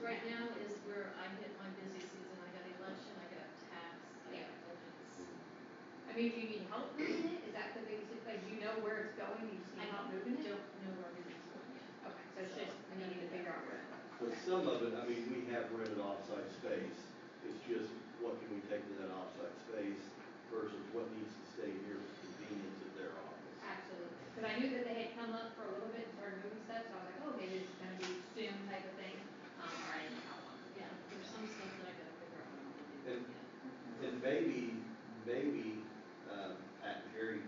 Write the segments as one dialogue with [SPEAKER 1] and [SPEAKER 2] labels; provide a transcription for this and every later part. [SPEAKER 1] right now is where I hit my busy season, I got election, I got tax, I got budgets.
[SPEAKER 2] I mean, do you need help moving it? Is that the biggest, like, you know where it's going, you just need
[SPEAKER 1] I
[SPEAKER 2] help
[SPEAKER 1] don't
[SPEAKER 2] moving it?
[SPEAKER 1] know where everything's going yet.
[SPEAKER 2] Okay, so it's just, I need to figure out where.
[SPEAKER 3] But some of it, I mean, we have rented offsite space, it's just what can we take to that offsite space versus what needs to stay here for convenience of their office.
[SPEAKER 2] Absolutely, because I knew that they had come up for a little bit and started moving stuff, so I was like, oh, maybe it's gonna be soon type of thing. Um, or I didn't know how long.
[SPEAKER 1] Yeah, there's some stuff that I gotta figure out what I'm gonna do
[SPEAKER 3] And-
[SPEAKER 1] yet.
[SPEAKER 3] And maybe, maybe, um, at Gary,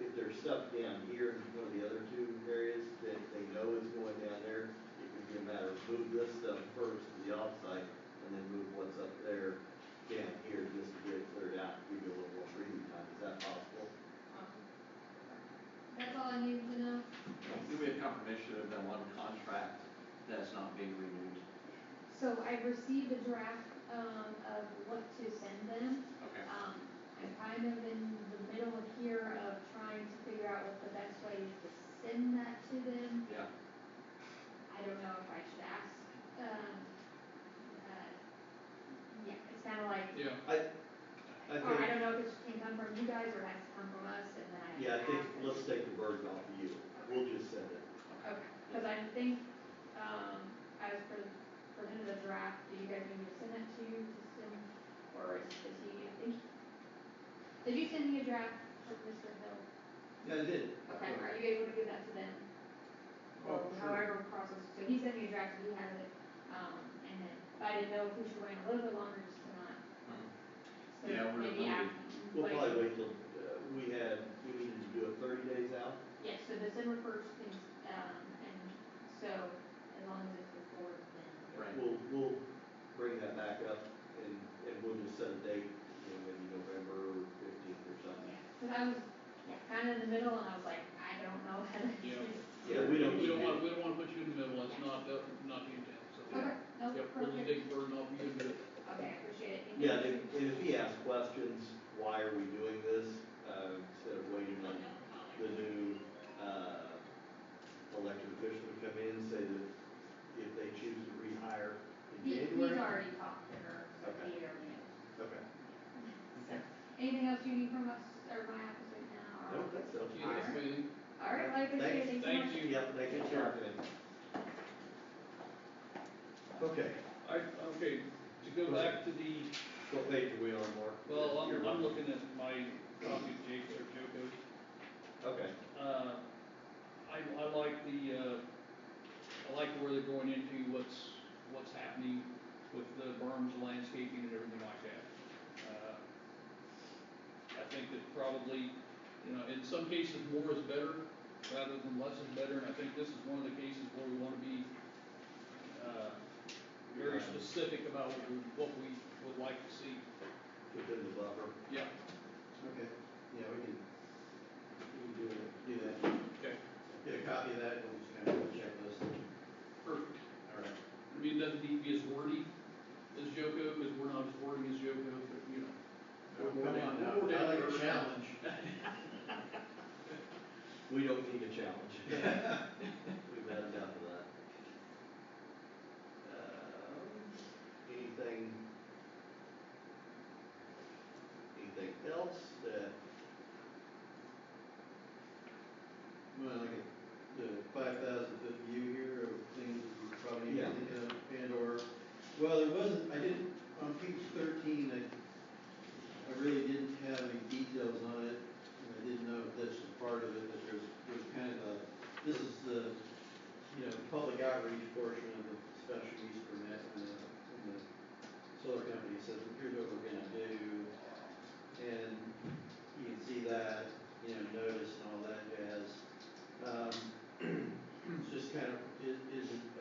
[SPEAKER 3] if there's stuff down here in one of the other two areas that they know is going down there, it would be a matter of move this stuff first to the offsite and then move what's up there down here just to get it cleared out, give you a little more breathing time. Is that possible?
[SPEAKER 2] That's all I needed to know.
[SPEAKER 4] Do we have confirmation of that one contract that's not being renewed?
[SPEAKER 2] So I received a draft, um, of what to send them.
[SPEAKER 4] Okay.
[SPEAKER 2] Um, I'm kind of in the middle of here of trying to figure out what the best way is to send that to them.
[SPEAKER 4] Yeah,
[SPEAKER 2] I don't know if I should ask, um, uh, yeah, it's kinda like,
[SPEAKER 5] Yeah,
[SPEAKER 3] I
[SPEAKER 2] or I
[SPEAKER 3] think,
[SPEAKER 2] don't know if it can come from you guys or has to come from us and then I.
[SPEAKER 3] yeah, I think,
[SPEAKER 2] ask and-
[SPEAKER 3] let's take the burden off of you. We'll just send it.
[SPEAKER 2] Okay, cause I think, um, I was pre- presented a draft, do you guys need me to send that to you, to send, or is, is he, I think, did you send me a draft from Mr. Hill?
[SPEAKER 3] Yeah, I did.
[SPEAKER 2] Okay, are you able to give that to them? Or
[SPEAKER 5] Oh, sure.
[SPEAKER 2] however process, so he sent me a draft, he has it, um, and then, but I didn't know if we should wait a little bit longer just to not. So
[SPEAKER 4] Yeah, we're
[SPEAKER 2] maybe
[SPEAKER 4] gonna
[SPEAKER 2] after-
[SPEAKER 3] We'll
[SPEAKER 2] wait.
[SPEAKER 3] probably wait till, uh, we had, we needed to do it thirty days out.
[SPEAKER 2] Yeah, so December first is, um, and so as long as it's before then.
[SPEAKER 4] right.
[SPEAKER 3] We'll, we'll bring that back up and, and we'll just set a date, you know, maybe November fifteenth or something.
[SPEAKER 2] Cause I was, yeah, kinda in the middle and I was like, I don't know how to.
[SPEAKER 5] Yeah.
[SPEAKER 3] Yeah, we don't need
[SPEAKER 5] we don't wanna,
[SPEAKER 3] to,
[SPEAKER 5] we don't wanna put you in the middle, that's not, that's not the intent, so.
[SPEAKER 2] Okay, no,
[SPEAKER 5] Yep, we're gonna
[SPEAKER 2] perfect.
[SPEAKER 5] take the burden off you and do it.
[SPEAKER 2] Okay, I appreciate it. Thank
[SPEAKER 3] yeah,
[SPEAKER 2] you.
[SPEAKER 3] and if- and if he asks questions, why are we doing this, uh, instead of waiting on the new, uh, elected official to come in, say that if they choose to rehire in
[SPEAKER 2] He,
[SPEAKER 3] January.
[SPEAKER 2] he's already talked to her, so
[SPEAKER 3] Okay.
[SPEAKER 2] he already knows.
[SPEAKER 3] Okay,
[SPEAKER 2] So, anything else you need from us or my office right now?
[SPEAKER 3] I
[SPEAKER 2] or-
[SPEAKER 3] don't think so.
[SPEAKER 5] Do you guys have anything?
[SPEAKER 2] All right, well, I appreciate it. Thanks
[SPEAKER 3] Thanks.
[SPEAKER 2] so
[SPEAKER 5] Thank
[SPEAKER 2] much.
[SPEAKER 5] you.
[SPEAKER 3] Yep, they can jump in. Okay,
[SPEAKER 5] I, okay, to go back to the,
[SPEAKER 3] what page are we on, Mark?
[SPEAKER 5] well, I'm,
[SPEAKER 3] You're
[SPEAKER 5] I'm
[SPEAKER 3] on.
[SPEAKER 5] looking at my copy of Jake's or Joko's.
[SPEAKER 3] Okay.
[SPEAKER 5] Uh, I, I like the, uh, I like where they're going into what's, what's happening with the berms, landscaping and everything like that. Uh, I think that probably, you know, in some cases, more is better rather than less is better. And I think this is one of the cases where we wanna be, uh, very
[SPEAKER 3] Yeah.
[SPEAKER 5] specific about what we, what we would like to see.
[SPEAKER 3] Within the buffer.
[SPEAKER 5] Yeah,
[SPEAKER 3] Okay, yeah, we can, we can do it, do that.
[SPEAKER 5] okay,
[SPEAKER 3] Get a copy of that, and we'll just kind of check this.
[SPEAKER 5] perfect.
[SPEAKER 3] All right.
[SPEAKER 5] I mean, it doesn't need to be as wordy as Joko, because we're not as wordy as Joko, but, you know. we're
[SPEAKER 3] Come
[SPEAKER 5] down-
[SPEAKER 3] on now,
[SPEAKER 5] we're down
[SPEAKER 3] I like a
[SPEAKER 5] to earth.
[SPEAKER 3] challenge. We don't need a challenge. We've had enough of that. Um,
[SPEAKER 6] Uh,
[SPEAKER 3] Anything? Anything else that?
[SPEAKER 6] Well, like the five thousand foot view here of things that you probably need
[SPEAKER 3] Yeah.
[SPEAKER 6] to think of and or, well, there wasn't, I didn't, on page thirteen, I, I really didn't have any details on it, and I didn't know if that's a part of it, but there's, there's kind of a, this is the, you know, public outreach portion of the special use permit, and the, and the solar company says, well, here's what we're gonna do, and you can see that, you know, notice and all that jazz. Um, it's just kind of, is, is it